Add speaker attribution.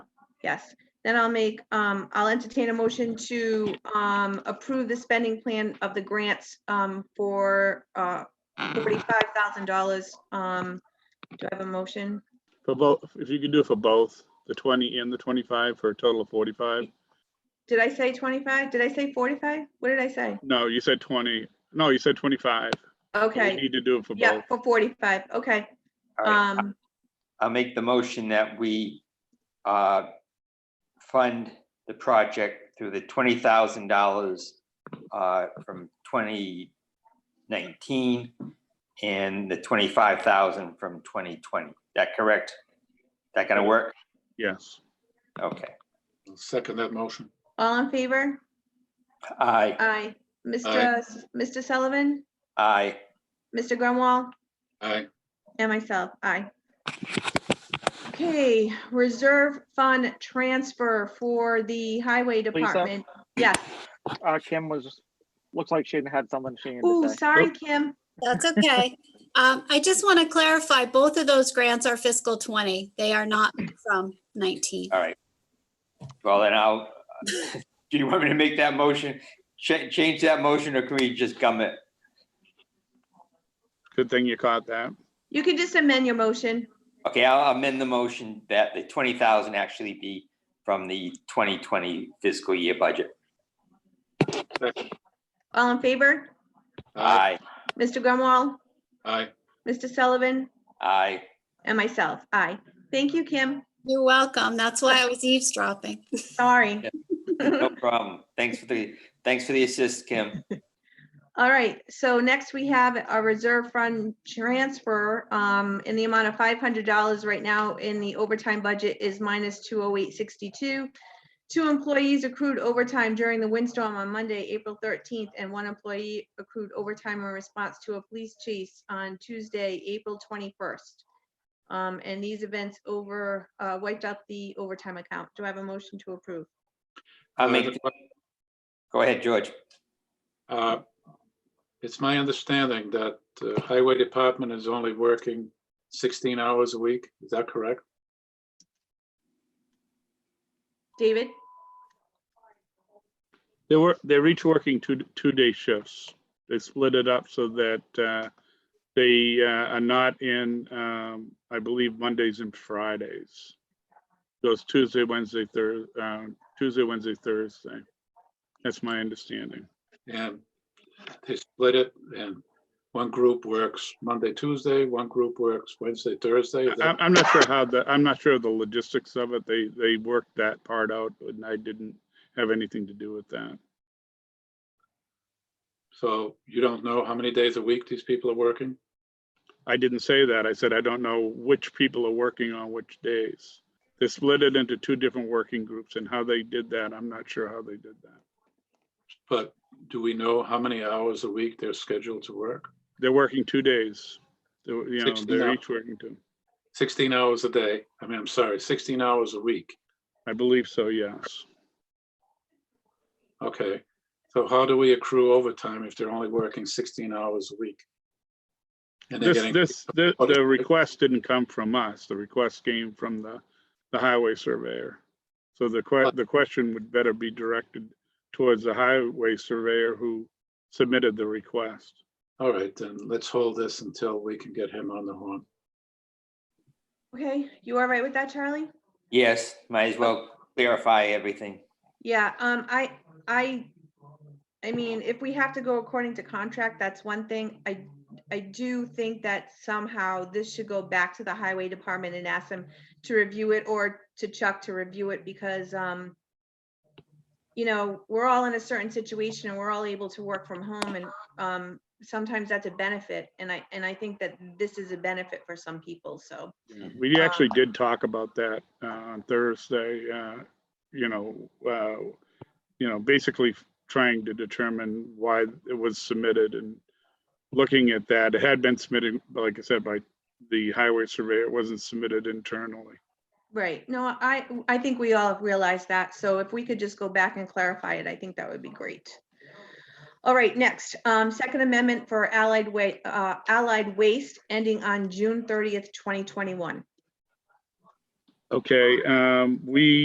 Speaker 1: Yes, then I'll make, um, I'll entertain a motion to, um, approve the spending plan of the grants, um, for, uh, forty-five thousand dollars. Um, do I have a motion?
Speaker 2: For both, if you could do it for both, the 20 and the 25 for a total of 45.
Speaker 1: Did I say twenty-five? Did I say forty-five? What did I say?
Speaker 2: No, you said 20. No, you said 25. We
Speaker 1: Okay,
Speaker 2: need to do it for
Speaker 1: yeah,
Speaker 2: both.
Speaker 1: for forty-five, okay.
Speaker 3: All right,
Speaker 1: Um,
Speaker 3: I'll make the motion that we uh, fund the project through the twenty thousand dollars uh, from twenty nineteen and the twenty-five thousand from twenty twenty. That correct? That gonna work?
Speaker 2: Yes.
Speaker 3: Okay.
Speaker 4: I'll Second that motion.
Speaker 1: all in favor?
Speaker 3: Aye,
Speaker 1: Aye. Mr.
Speaker 4: Aye.
Speaker 1: S- Mr. Sullivan,
Speaker 3: aye.
Speaker 1: Mr. Grunwall,
Speaker 4: Aye.
Speaker 1: and myself, aye. Okay, reserve fund transfer for the highway department. Yes.
Speaker 5: Uh, Kim was, looks like she had something she needed
Speaker 1: Ooh,
Speaker 5: to say.
Speaker 1: sorry, Kim.
Speaker 6: That's okay. Um, I just want to clarify, both of those grants are fiscal 20. They are not from 19.
Speaker 3: All right. Well, then I'll, uh, do you want me to make that motion? Cha- Change that motion or can we just gum it?
Speaker 2: Good thing you caught that.
Speaker 1: You can just amend your motion.
Speaker 3: Okay, I'll amend the motion that the twenty thousand actually be from the twenty twenty fiscal year budget.
Speaker 1: All in favor?
Speaker 4: Aye.
Speaker 3: Aye,
Speaker 1: Mr. Grunwall,
Speaker 4: Aye.
Speaker 1: Mr. Sullivan,
Speaker 3: aye.
Speaker 1: and myself, aye. Thank you, Kim.
Speaker 6: You're welcome. That's why I was eavesdropping.
Speaker 1: Sorry.
Speaker 3: No problem. Thanks for the, thanks for the assist, Kim.
Speaker 1: All right, so next we have a reserve fund transfer um, in the amount of five hundred dollars right now in the overtime budget is minus two oh eight sixty-two. Two employees accrued overtime during the windstorm on Monday, April thirteenth, and one employee accrued overtime in response to a police chase on Tuesday, April twenty-first. Um, And these events over, uh, wiped out the overtime account. Do I have a motion to approve?
Speaker 3: I'll make, go ahead, George.
Speaker 4: Uh, It's my understanding that the highway department is only working 16 hours a week. Is that correct?
Speaker 1: David?
Speaker 2: They were, they're each working two, two-day shifts. They split it up so that uh, they uh, are not in, um, I believe, Mondays and Fridays. Goes Tuesday, Wednesday, Thursday, Tuesday, Wednesday, Thursday. That's my understanding.
Speaker 4: And they split it and one group works Monday, Tuesday, one group works Wednesday, Thursday. Is
Speaker 2: I'm,
Speaker 4: that-
Speaker 2: I'm not sure how the, I'm not sure of the logistics of it. They, they worked that part out and I didn't have anything to do with that.
Speaker 4: So you don't know how many days a week these people are working?
Speaker 2: I didn't say that. I said, I don't know which people are working on which days. They split it into two different working groups and how they did that, I'm not sure how they did that.
Speaker 4: But do we know how many hours a week they're scheduled to work?
Speaker 2: They're working two days. They're, you know,
Speaker 4: 16
Speaker 2: they're
Speaker 4: hours.
Speaker 2: each working two.
Speaker 4: 16 hours a day. I mean, I'm sorry, 16 hours a week.
Speaker 2: I believe so, yes.
Speaker 4: Okay. So how do we accrue overtime if they're only working 16 hours a week? And they're
Speaker 2: This,
Speaker 4: getting,
Speaker 2: this, the,
Speaker 4: Okay.
Speaker 2: the request didn't come from us. The request came from the, the highway surveyor. So the que, the question would better be directed towards the highway surveyor who submitted the request.
Speaker 4: all right, then let's hold this until we can get him on the horn.
Speaker 1: Okay, you all right with that, Charlie?
Speaker 3: Yes, might as well clarify everything.
Speaker 1: Yeah, um, I, I, I mean, if we have to go according to contract, that's one thing. I, I do think that somehow this should go back to the highway department and ask them to review it or to Chuck to review it because, um, you know, we're all in a certain situation and we're all able to work from home and, um, sometimes that's a benefit. And I, and I think that this is a benefit for some people, so.
Speaker 2: We actually did talk about that uh, on Thursday, uh, you know, uh, you know, basically trying to determine why it was submitted and looking at that. It had been submitted, like I said, by the highway surveyor. It wasn't submitted internally.
Speaker 1: Right, no, I, I think we all realize that, so if we could just go back and clarify it, I think that would be great. All right, next, um, Second Amendment for Allied Wa- uh, Allied Waste ending on June thirtieth, twenty twenty-one.
Speaker 2: Okay, um, we